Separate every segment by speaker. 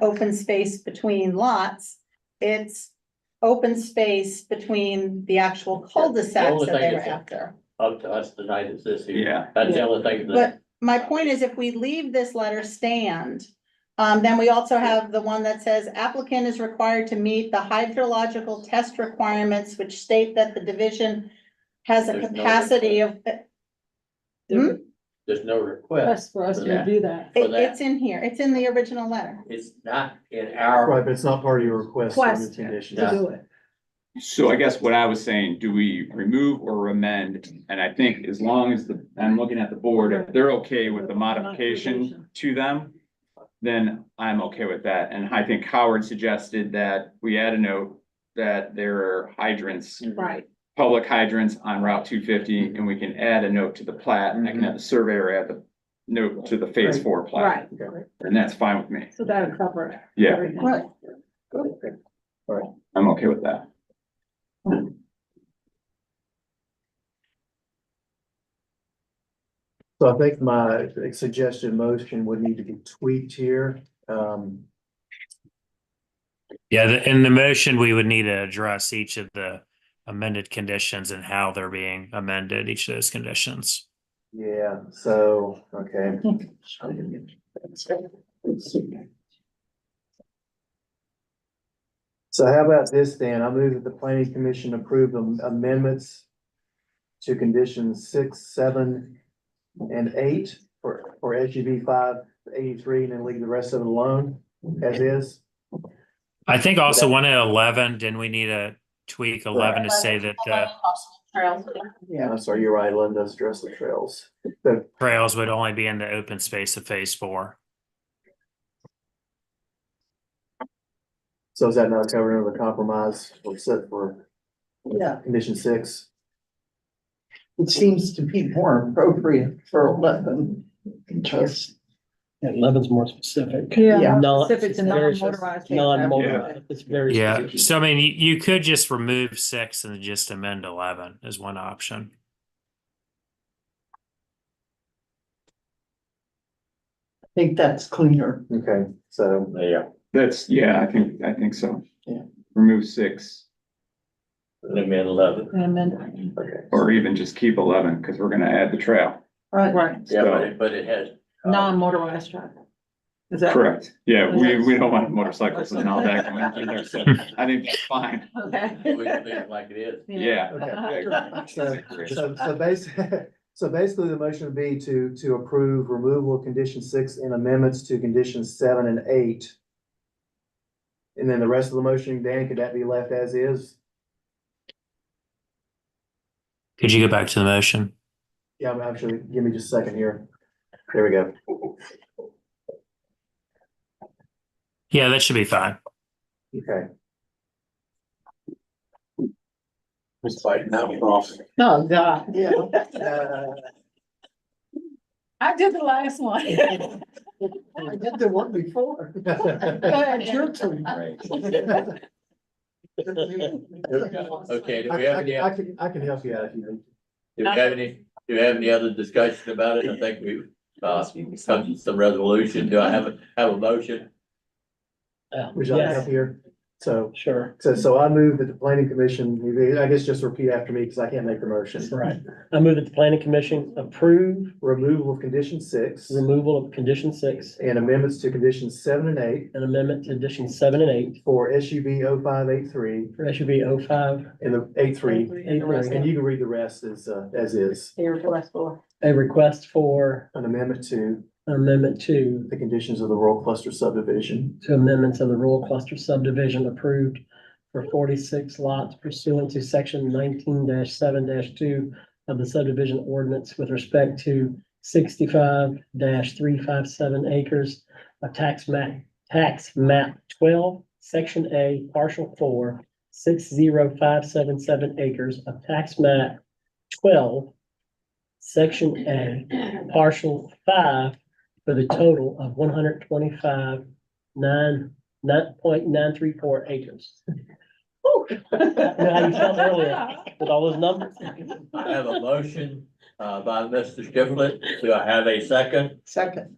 Speaker 1: open space between lots. It's open space between the actual cul-de-sacs that they were after.
Speaker 2: up to us tonight is this here.
Speaker 3: Yeah.
Speaker 2: That's the only thing that,
Speaker 1: But my point is if we leave this letter stand, um, then we also have the one that says applicant is required to meet the hydrological test requirements, which state that the division has a
Speaker 2: There's no
Speaker 1: capacity of, it- Hmm?
Speaker 2: there's no request.
Speaker 4: Best for us to
Speaker 3: Yeah.
Speaker 4: review that.
Speaker 2: For that.
Speaker 1: it's in here, it's in the original letter.
Speaker 2: It's not in our,
Speaker 5: Right, but it's not part of your request or your
Speaker 4: Request.
Speaker 5: condition.
Speaker 4: To do it.
Speaker 3: So I guess what I was saying, do we remove or amend? And I think as long as the, I'm looking at the board, if they're okay with the modification to them, then I'm okay with that. And I think Howard suggested that we add a note that there are hydrants,
Speaker 4: Right.
Speaker 3: public hydrants on Route two fifty,
Speaker 4: Mm-hmm.
Speaker 3: and we can add a note to the plat, and I can have the surveyor add the note to the phase four plat.
Speaker 4: Right,
Speaker 3: And that's fine with me.
Speaker 4: so that'll cover
Speaker 3: Yeah,
Speaker 4: everything.
Speaker 1: Right.
Speaker 3: I'm okay with that.
Speaker 5: So I think my suggested motion would need to be tweaked here. Um,
Speaker 6: Yeah, the, in the motion, we would need to address each of the amended conditions and how they're being amended, each of those conditions.
Speaker 5: yeah, so, okay. So how about this then? I move that the planning commission approve the amendments to conditions six, seven, and eight for, for SGB five eighty-three and then leave the rest of it alone as is.
Speaker 6: I think also one at eleven, didn't we need to tweak eleven to say that the
Speaker 5: Yeah, I'm sorry, you're right, Lynn does address the trails. So
Speaker 6: trails would only be in the open space of phase four?
Speaker 5: So is that not covered under the compromise or set for
Speaker 7: Yeah,
Speaker 5: condition six?
Speaker 7: it seems to be more appropriate for eleven, because
Speaker 8: Yeah, eleven's more specific.
Speaker 7: Yeah.
Speaker 8: Non-
Speaker 4: If it's a
Speaker 8: very-
Speaker 4: non-motorized vehicle.
Speaker 8: Non-motorized, it's very.
Speaker 6: Yeah,
Speaker 8: specific.
Speaker 6: so I mean, you, you could just remove six and just amend eleven as one option.
Speaker 7: I think that's cleaner.
Speaker 5: Okay, so,
Speaker 2: yeah,
Speaker 3: That's, yeah, I think, I think so.
Speaker 7: Yeah.
Speaker 3: Remove six,
Speaker 2: I'm in eleven.
Speaker 4: And amend-
Speaker 5: okay.
Speaker 3: or even just keep eleven, because we're gonna add the trail.
Speaker 4: Right,
Speaker 2: Yeah, but it, but it has. uh,
Speaker 4: non-motorized traffic. Is that?
Speaker 3: Correct, yeah, we, we don't want motorcycles and all that going through there, so I think that's fine,
Speaker 2: We
Speaker 4: Okay.
Speaker 2: can leave it like it is.
Speaker 3: yeah.
Speaker 5: Okay. So,
Speaker 3: Agreed.
Speaker 5: so, so basically, so basically the motion would be to, to approve removal of condition six and amendments to conditions seven and eight. And then the rest of the motion, Dan, could that be left as is?
Speaker 6: Could you go back to the motion?
Speaker 5: Yeah, I'm actually, give me just a second here. There we go.
Speaker 6: Yeah, that should be fine.
Speaker 5: Okay,
Speaker 2: It's like now we're off.
Speaker 4: Oh, God.
Speaker 7: Yeah.
Speaker 4: I did the last one.
Speaker 7: I did the one before. It's your turn.
Speaker 2: Okay, do we
Speaker 5: I,
Speaker 2: have any,
Speaker 5: I- I can, I can help you out if you need.
Speaker 2: do we have any, do we have any other discussion about it? I think we've, uh, come to some resolution. Do I have, a have a motion?
Speaker 8: Yeah,
Speaker 5: Would you like
Speaker 8: yes,
Speaker 5: help here? So,
Speaker 8: Sure,
Speaker 5: so, so I move that the planning commission, I guess just repeat after me because I can't make the motion.
Speaker 8: that's right. I move that the planning commission approve
Speaker 5: Removal of condition six
Speaker 8: removal of condition six
Speaker 5: and amendments to conditions seven and eight
Speaker 8: and amendment to addition seven and eight
Speaker 5: for SUB 0583
Speaker 8: for SUV oh five.
Speaker 5: and the eight three.
Speaker 4: And the rest
Speaker 5: And
Speaker 4: of-
Speaker 5: you can read the rest as, uh, as is,
Speaker 4: They were the last four.
Speaker 8: A request for
Speaker 5: an amendment to
Speaker 8: amendment to,
Speaker 5: the conditions of the rural cluster subdivision.
Speaker 8: to amendments of the rural cluster subdivision approved for forty-six lots pursuant to section nineteen seven two of the subdivision ordinance with respect to sixty-five three five seven acres of tax map, tax map twelve, section A, partial four, six zero five seven seven acres of tax map twelve, section A, partial five, for the total of one hundred twenty-five nine, nine point nine three four acres. You know how you felt earlier with all those numbers?
Speaker 2: I have a motion, uh, by Mr. Striplin. Do I have a second?
Speaker 7: Second,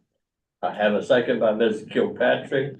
Speaker 2: I have a second by Ms. Kilpatrick.